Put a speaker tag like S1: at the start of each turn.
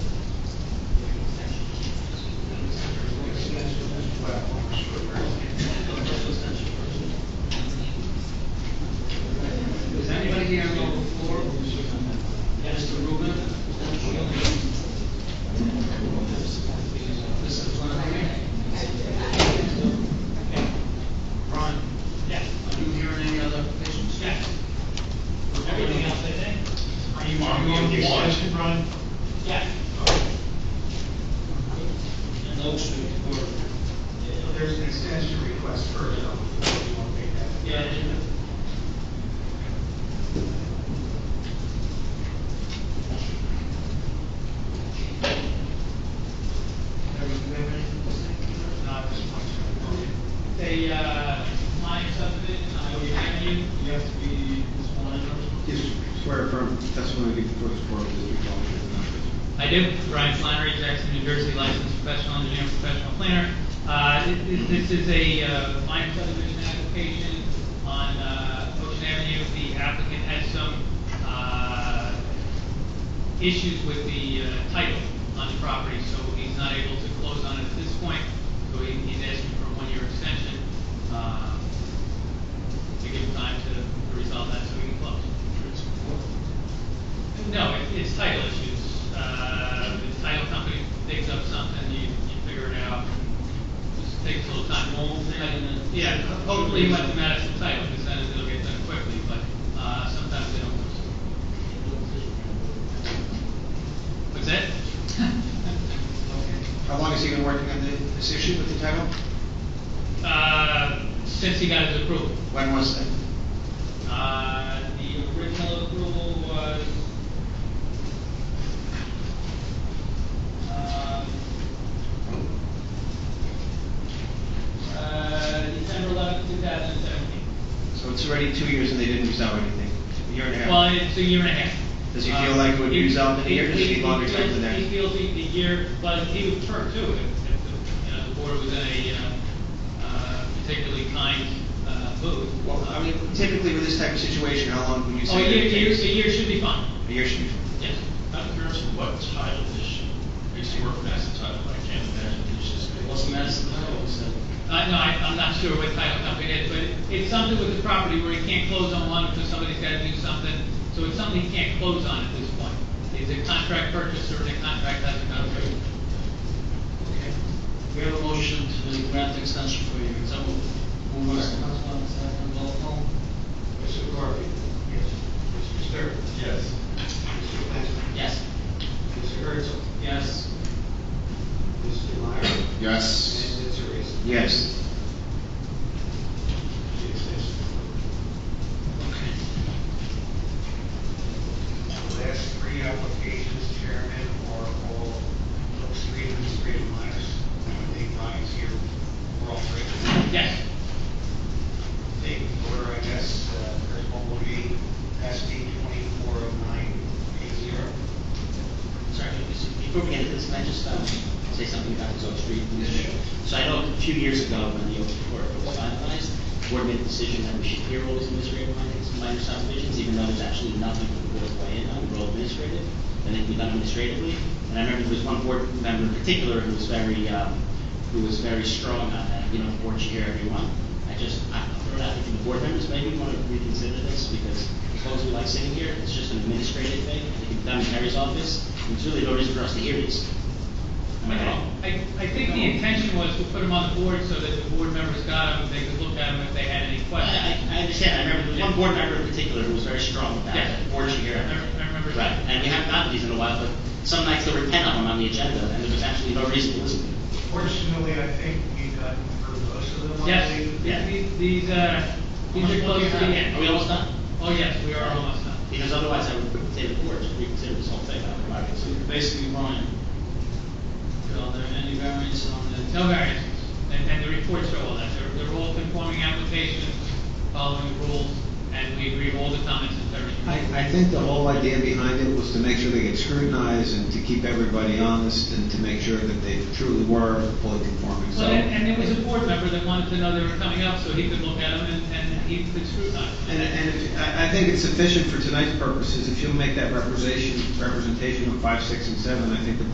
S1: uh,
S2: confirm, that's when I get the first part of this, we call it the numbers.
S1: I do. Brian Flannery, Jackson, New Jersey, licensed professional engineer, professional planner. Uh, thi- thi- This is a uh, minor subdivision application on uh, Ocean Avenue. The applicant has some uh, issues with the uh, title on the property, so he's not able to close on it at this point. So he- he's asking for a one-year extension uh, to give time to to resolve that so we can close. No, it- it's title issues. Uh, The title company digs up something, you, you figure it out. Just takes a little time. Yeah, hopefully you let them out some title, because then it'll get done quickly, but uh, sometimes they don't. What's that?
S2: How long has he been working on thi- this issue with the title?
S1: Uh, Since he got his approval.
S2: When was that?
S1: Uh, The original approval was, um, uh, December eleventh, two thousand seventeen.
S2: So it's already two years and they didn't resolve anything, a year and a half.
S1: Well, it's a year and a half.
S2: Does he feel like it would
S1: Uh,
S2: result in a year, or does he
S1: he-
S2: need longer time than that?
S1: He feels he, the year, but he would turn to it if, if, the, you know, the board was in a, uh, uh, particularly kind, uh, mood.
S2: Well, I mean, typically with this type of situation, how long would you
S1: Oh,
S2: say?
S1: a
S2: that
S1: year,
S2: it
S1: a year,
S2: takes?
S1: a year should be fine,
S2: A year should be. fine.
S1: yes.
S3: I'm curious what title issue, it's the work master title, I can't imagine it's just. It wasn't Madison title, was it?
S1: Uh, no, I, I'm not sure what title company it is, but it's something with the property where he can't close on one because somebody's gotta do something. So it's something he can't close on at this point. He's a contract purchaser and a contract has a contract.
S3: Okay. We have a motion to grant the extension for you, so move.
S4: Mr. Councilman, second, roll call.
S5: Mr. Garvey? Yes. Mr. Stern?
S3: Yes.
S5: Mr. Flannery?
S3: Yes.
S5: Mr. Herzl?
S3: Yes.
S5: Mr. Meyer?
S2: Yes.
S5: And Mr. Reese?
S2: Yes.
S5: The extension. The last three applications, Chairman, are all Oak Street and Street and Myers. I think mine's here, we're all three.
S1: Yes,
S5: Take order, I guess, uh, first one will be SD twenty-four oh nine eight zero.
S6: Sorry, just before we get into this, can I just um, say something about this Oak Street initiative? So I know a few years ago, when the Oak Street Court was finalized, the board made a decision that we should hear all these administrative findings, minor subdivisions, even though there's actually nothing for the board to weigh in on, we're all administrative, and they can be done administratively. And I remember there was one board member in particular who was very, um, who was very strong on that, you know, board should hear everyone. I just, I throw it out there to the board members, maybe want to reconsider this, because as long as we like sitting here, it's just an administrative thing, it can be done in Harry's office, and there's really no reason for us to hear these. Am I wrong?
S1: I, I think the intention was to put them on the board so that the board members got them, they could look at them if they had any
S6: Well,
S1: questions.
S6: I, I- I understand, I remember there was one board member in particular who was very strong about
S1: Yeah.
S6: it, board should hear
S1: I
S6: everything.
S1: rem- I remember
S6: Right,
S1: that.
S6: and we haven't gotten these in a while, but some nights there were ten of them on the agenda, and there was actually no reason to listen to them.
S5: Fortunately, I think we've gotten through most of them. I
S1: Yes,
S5: believe.
S6: Yeah.
S1: these, these, uh, these are close to the end.
S6: Are we almost done?
S1: Oh, yes, we are almost done.
S6: Because otherwise I would say the board should reconsider this whole thing, I would like to
S3: So
S6: see.
S3: you're basically Ryan. Are there any variants on the?
S1: No variances, and, and the reports show all that, they're, they're all conforming applications, following the rules, and we agree with all the comments and everything.
S7: I, I think the whole idea behind it was to make sure they get scrutinized and to keep everybody honest and to make sure that they truly were fully conforming, so.
S1: Well, and, and there was a board member that wanted to know they were coming up, so he could look at them and, and he could scrutinize. them.
S7: And, and if, I, I think it's sufficient for tonight's purposes, if you'll make that representation, representation of five, six, and seven, I think the